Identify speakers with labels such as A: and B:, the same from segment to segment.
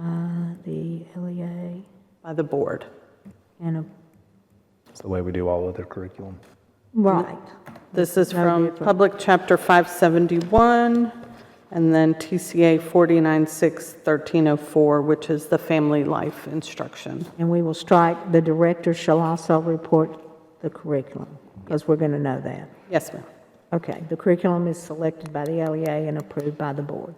A: Uh,
B: by the
A: E
B: board.
A: and a,
C: It's the way we do all other curriculum.
A: right.
B: This is
A: That would
B: from
A: be a-
B: Public Chapter 571, and then TCA 496-1304, which is the family life instruction.
A: And we will strike, the director shall also report the curriculum, because we're going to know that.
B: Yes, ma'am.
A: Okay, the curriculum is selected by the LEA and approved by the board.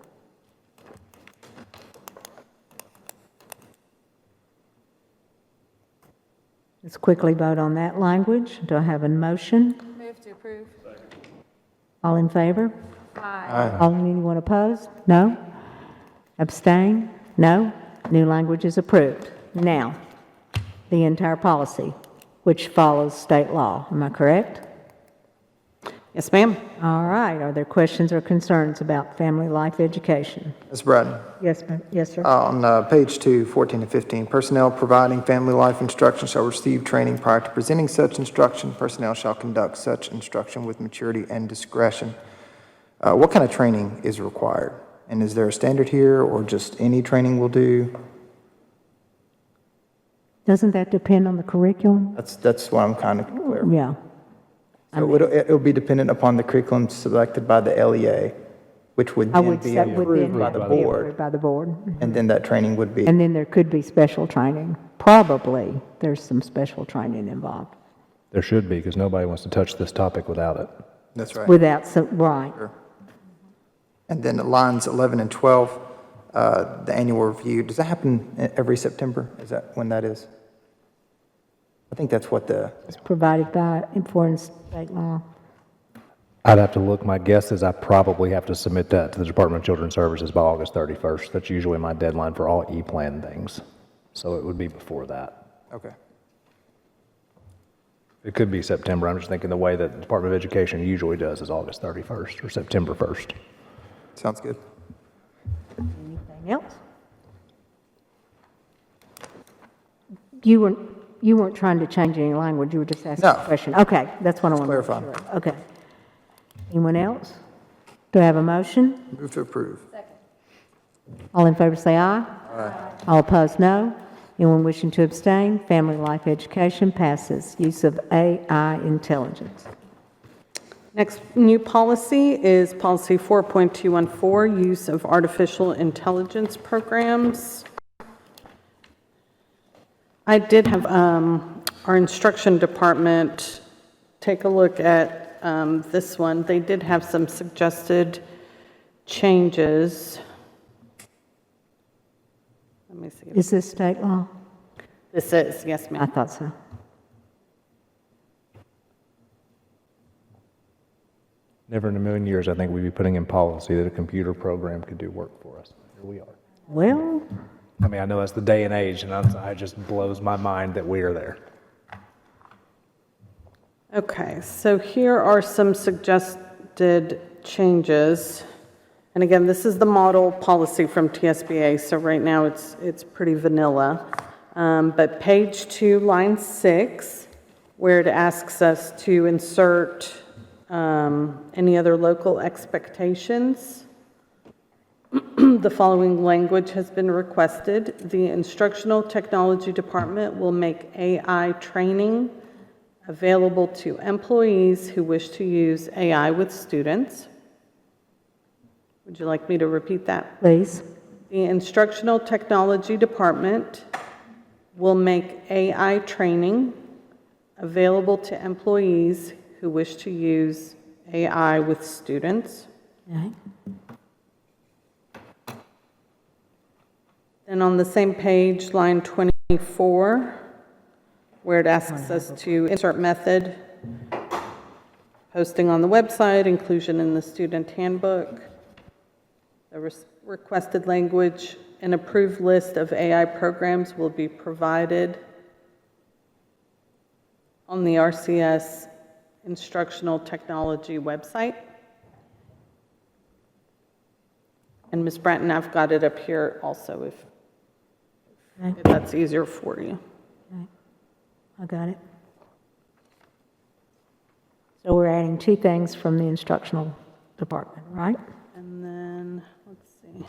A: Let's quickly vote on that language. Do I have a motion?
D: Move to approve.
A: All in favor? Aye. All, anyone opposed? No? Abstain? No? New language is approved. Now, the entire policy, which follows state law, am I correct?
B: Yes, ma'am.
A: All right, are there questions or concerns about family life education?
E: Ms. Braden,
A: Yes, ma'am, yes, sir.
E: on uh, page two, 14 to 15, personnel providing family life instruction shall receive training prior to presenting such instruction. Personnel shall conduct such instruction with maturity and discretion. Uh, What kind of training is required? And is there a standard here, or just any training will do?
A: Doesn't that depend on the curriculum?
E: That's, that's what I'm kind of clear.
A: Yeah,
E: So it'll, it'll be dependent upon the curriculum selected by the LEA, which would
A: I
E: then
A: would,
E: be
A: that would then
E: approved by
A: have
E: the
A: to be approved
E: board.
A: by the board.
E: And then that training would be,
A: And then there could be special training. Probably, there's some special training involved
C: There should be, because nobody wants to touch this topic without it.
E: that's right.
A: without, some- right.
E: And then at lines 11 and 12, uh, the annual review, does that happen e- every September? Is that when that is? I think that's what the,
A: It's provided by, for state law.
C: I'd have to look, my guess is I probably have to submit that to the Department of Children's Services by August 31st. That's usually my deadline for all E-Plan things, so it would be before that.
E: okay.
C: It could be September, I'm just thinking the way that the Department of Education usually does is August 31st or September 1st.
E: Sounds good.
A: Anything else? You weren't, you weren't trying to change any language, you were just asking
E: No.
A: a question. Okay, that's what I wanted to
E: clarifying.
A: make sure of. Okay. Anyone else? Do I have a motion?
E: Move to approve.
A: All in favor say aye. Aye. All opposed, no. Anyone wishing to abstain? Family life education passes. Use of AI intelligence.
B: Next new policy is Policy 4.214, Use of Artificial Intelligence Programs. I did have um, our instruction department take a look at um, this one. They did have some suggested changes. Let me see.
A: Is this state law?
B: This is, yes,
A: I
B: ma'am.
A: thought so.
C: Never in a million years, I think we'd be putting in policy that a computer program could do work for us. Here we are.
A: Well,
C: I mean, I know that's the day and age, and I- it just blows my mind that we are there.
B: Okay, so here are some suggested changes. And again, this is the model policy from TSBA, so right now it's, it's pretty vanilla. Um, But page two, line six, where it asks us to insert um, any other local expectations. The following language has been requested. The Instructional Technology Department will make AI training available to employees who wish to use AI with students. Would you like me to repeat that?
A: please.
B: The Instructional Technology Department will make AI training available to employees who wish to use AI with students.
A: Okay.
B: And on the same page, line 24, where it asks us to insert method, posting on the website, inclusion in the student handbook, the res- requested language, an approved list of AI programs will be provided on the RCS instructional technology website. And Ms. Bratton, I've got it up here also if if that's easier for you.
A: I got it. So we're adding two things from the instructional department, right?